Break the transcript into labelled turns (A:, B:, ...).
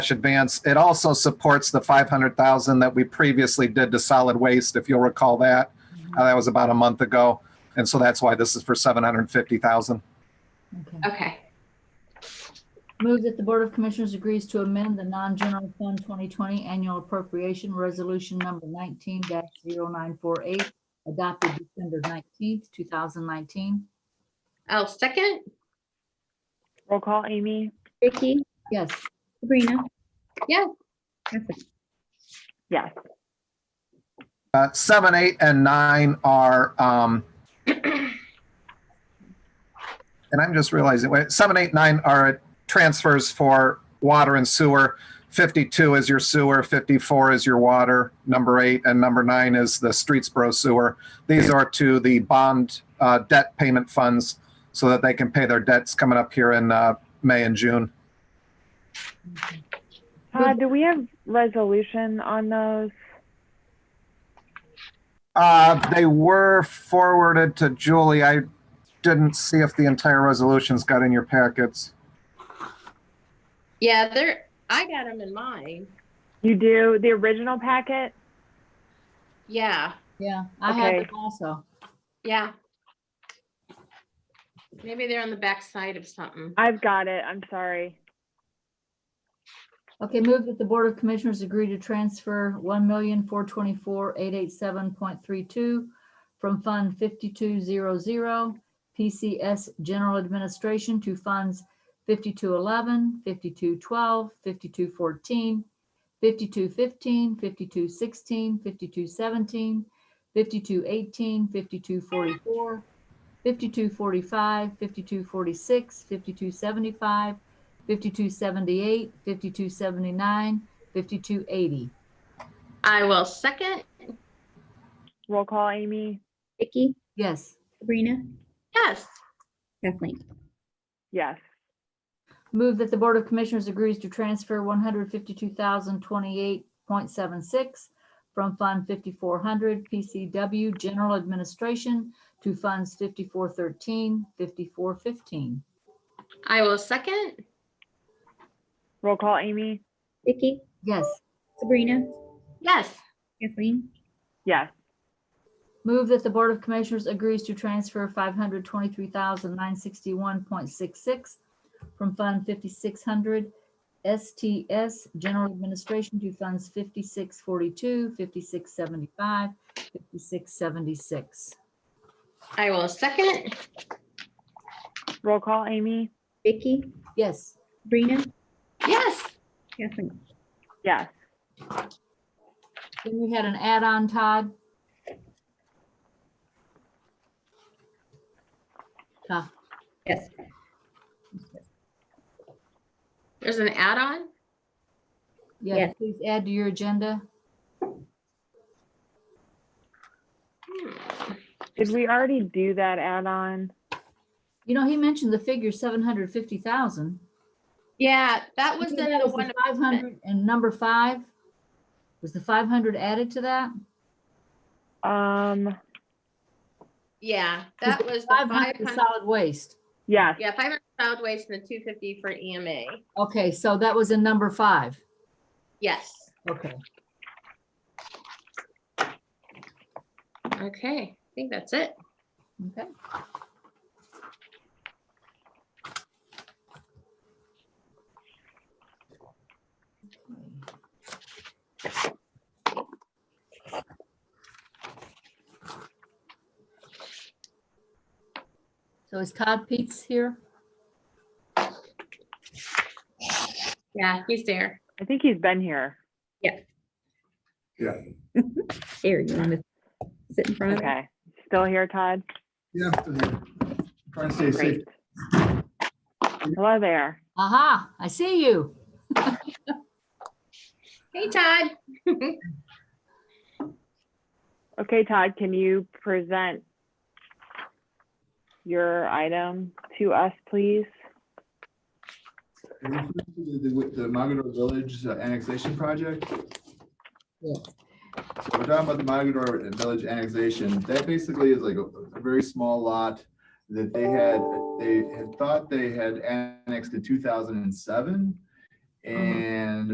A: advance. It also supports the 500,000 that we previously did to solid waste, if you'll recall that. Uh, That was about a month ago. And so that's why this is for 750,000.
B: Okay.
C: Okay,
B: Move that the Board of Commissioners agrees to amend the non-general fund 2020 annual appropriation resolution number 19-0948 adopted December 19th, 2019.
C: I'll Oh, second.
D: Roll call, Amy?
E: Vicky,
B: Yes,
E: Sabrina.
C: Yes.
E: Perfect.
D: Yes.
A: Uh, Seven, eight, and nine are, um, and I'm just realizing, wait, seven, eight, nine are transfers for water and sewer. 52 is your sewer, 54 is your water, number eight, and number nine is the Streetsboro sewer. These are to the bond uh, debt payment funds so that they can pay their debts coming up here in uh, May and June.
D: Todd, Uh, do we have resolution on those?
A: Uh, They were forwarded to Julie. I didn't see if the entire resolutions got in your packets.
C: Yeah, there, I got them in mine.
D: You do, the original packet?
C: Yeah,
B: yeah, I have
D: Okay.
B: it also.
C: yeah. Maybe they're on the back side of something.
D: I've got it, I'm sorry.
B: Okay, move that the Board of Commissioners agree to transfer 1,424,887.32 from Fund 5200 PCS General Administration to Funds 5211, 5212, 5214, 5215, 5216, 5217, 5218, 5244, 5245, 5246, 5275, 5278, 5279, 5280.
C: I will second.
D: Roll call, Amy?
E: Vicky,
B: Yes.
E: Sabrina,
C: Yes,
E: Kathleen.
D: Yes.
B: Move that the Board of Commissioners agrees to transfer one hundred fifty-two thousand twenty-eight point seven six from Fund fifty-four hundred PCW General Administration to Funds 5413, 5415.
C: I will second.
D: Roll call, Amy?
E: Vicky,
B: Yes.
E: Sabrina,
C: Yes,
E: Kathleen.
D: Yes.
B: Move that the Board of Commissioners agrees to transfer five hundred twenty-three thousand nine sixty-one point six six from Fund fifty-six hundred STS General Administration to Funds 5642, 5675, 5676.
C: I will second.
D: Roll call, Amy?
E: Vicky,
B: Yes.
E: Sabrina,
C: Yes,
E: Kathleen.
D: Yes.
B: Then we had an add-on, Todd. Huh,
E: Yes.
C: there's an add-on.
B: Yeah,
E: Yes.
B: please add to your agenda.
C: Hmm.
D: Did we already do that add-on?
B: You know, he mentioned the figure seven hundred fifty thousand.
C: Yeah, that was in the one. of-
B: Five hundred and number five? Was the five hundred added to that?
D: Um,
C: Yeah, that was the
B: Five
C: five
B: hundred
C: hundred,
B: solid waste.
D: yes,
C: yeah, five hundred solid waste and the two fifty for E EMA.
B: Okay, so that was in number five.
C: Yes,
B: Okay.
C: okay, I think that's it.
B: Okay. So is Todd Peets here?
C: Yeah, he's there.
D: I think he's been here.
E: Here, you want to sit in front of them?
D: Okay. Still here, Todd?
F: Yeah, trying to stay safe.
D: Great. Hello there.
B: Aha, I see you.
C: Hey, Todd.
D: Okay, Todd, can you present your item to us, please?
F: Are you familiar with The with the Mogador Village uh, annexation project?
B: Yeah.
F: So We're talking about the Mogador Village annexation. That basically is like a- a very small lot that they had, they had thought they had annexed in two thousand and seven. And